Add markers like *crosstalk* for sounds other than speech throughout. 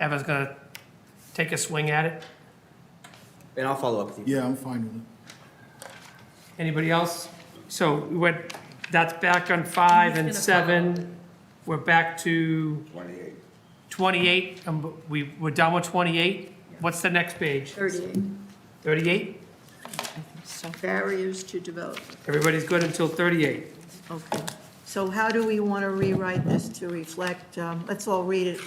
Eva's gonna take a swing at it. And I'll follow up with you. Yeah, I'm fine with it. Anybody else? So we went, that's back on five and Who's gonna follow? seven. We're back to? Twenty-eight. Twenty-eight, and b- we, we're done with twenty-eight. What's the next page? 38, Thirty-eight? barriers to development, Everybody's good until thirty-eight. okay. So how do we want to rewrite this to reflect, um, let's all read it.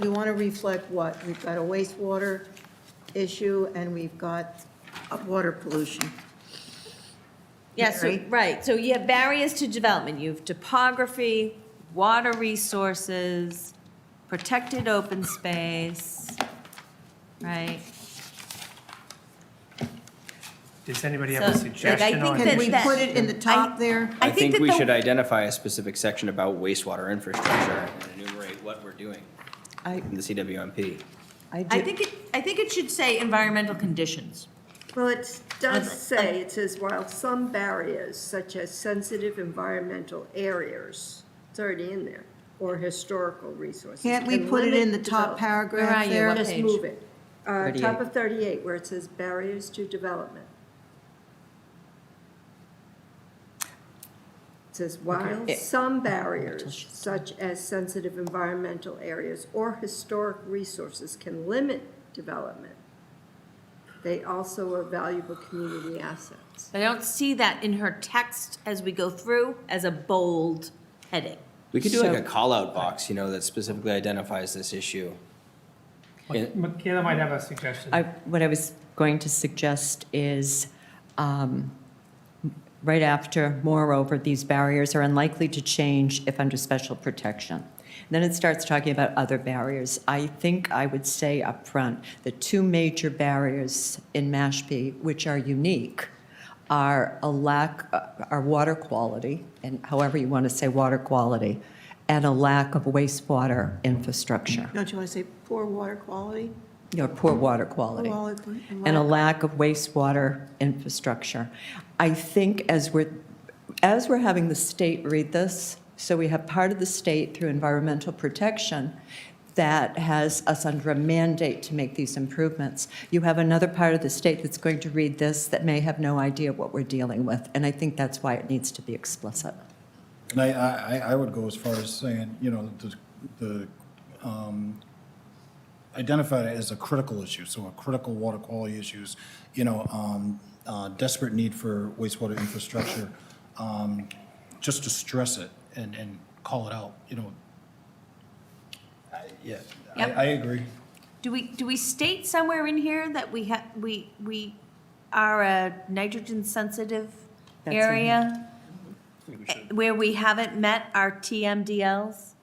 We want to reflect what? We've got a wastewater issue and we've got uh, water pollution. Yes, so- Right? right, so you have barriers to development, you have topography, water resources, protected open space, right? Does anybody have a So, like, I suggestion think on that- Can it? we put it in the top there? I think think that we the- should identify a specific section about wastewater infrastructure and enumerate what we're doing I, in the CWMP. I think it, I think it should say environmental conditions. Well, it does say, it says, while some barriers such as sensitive environmental areas, it's already in there, or historical resources. Can't we can put it in the limit top develop- Where are paragraph you? there? What Just page? move it. Uh, top 38. of thirty-eight, where it says barriers to development. It says, while some barriers such as sensitive environmental areas or historic resources can limit development, they also are valuable community assets. I don't see that in her text as we go through as a bold heading. We could do like a call-out box, you know, that specifically identifies this issue. Yeah. Michaela might have a suggestion. I, what I was going to suggest is, um, right after, moreover, these barriers are unlikely to change if under special protection. Then it starts talking about other barriers. I think I would say up front the two major barriers in Mashpee, which are unique, are a lack, uh, are water quality, and however you want to say water quality, and a lack of wastewater infrastructure, Don't you want to say poor water quality? you know, poor water Poor quality water- and a lack of wastewater infrastructure. I think as we're, as we're having the state read this, so we have part of the state through environmental protection that has us under a mandate to make these improvements. You have another part of the state that's going to read this that may have no idea what we're dealing with, and I think that's why it needs to be explicit. And I, I, I- I would go as far as saying, you know, the, the, um, identify it as a critical issue, so a critical water quality issues, you know, um, uh, desperate need for wastewater infrastructure, um, just to stress it and, and call it out, you know. I- Yeah, I, Yep. I agree. Do we, do we state somewhere in here that we have, we, we are a nitrogen-sensitive That's in area? eh, Where we haven't met our TMDLs?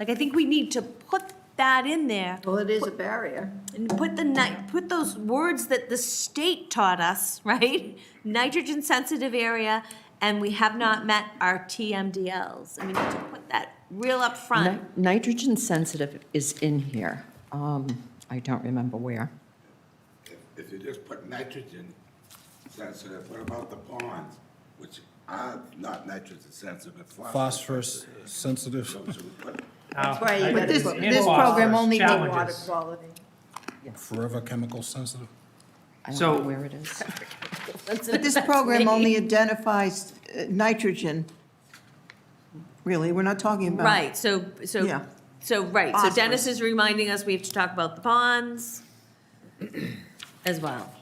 Like, I think we need to put that in there Well, it is a barrier. and put the ni, put those words that the state taught us, *laughs* right? Nitrogen-sensitive area, and we have not met our TMDLs. And we need to put that real up front. Ni- Nitrogen sensitive is in here. Um, I don't remember where. If- If you just put nitrogen sensitive, what about the ponds, which are not nitrogen sensitive, but phosphorus? Phosphorus sensitive. So should we put That's Right, But this, And this program only did Water Challenges. quality. Forever chemical sensitive? I don't So- know where it is. But this program only identifies uh, nitrogen. Really, we're not talking uh, about. Right, so, so, Yeah. so, right, so Dennis is reminding us we have to talk about the ponds as well.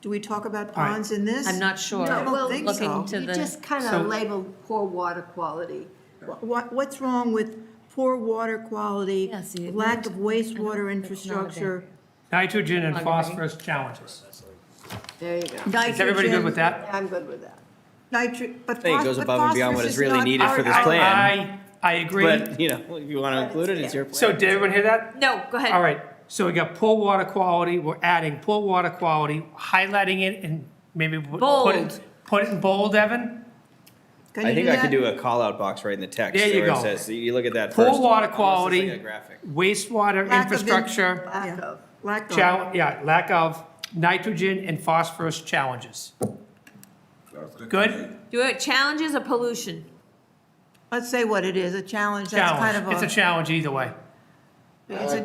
Do we talk about ponds in this? I'm not sure. No, well, Looking looking to You the- just kind So- of labeled poor water quality. What, what's wrong with poor water quality? Yeah, see, it Lack of wastewater it's not a infrastructure? Nitrogen and phosphorus challenges. There you go. Is everybody good with that? I'm good with that. Nitrogen, but phos- but phosphorus is I think it not. goes above and beyond what is really needed for this I- plan. I, I agree. But, you know, if you want to include it, it's your plan. So did everyone hear that? No, go ahead. All right, so we got poor water quality, we're adding poor water quality, highlighting it and maybe w- put it, Bold. put it in bold, Evan? Can I you do think I could that? do a call-out box right in the text. There you where it go. says- You look at that first. Poor water almost as quality, like a graphic. wastewater Lack of in- infrastructure, Lack Yeah. of. Lack of. chal- yeah, lack of nitrogen and phosphorus challenges. Good? Do it, challenges or pollution? Let's say what it is, a challenge, that's kind Challenge, of it's a challenge either way. It's a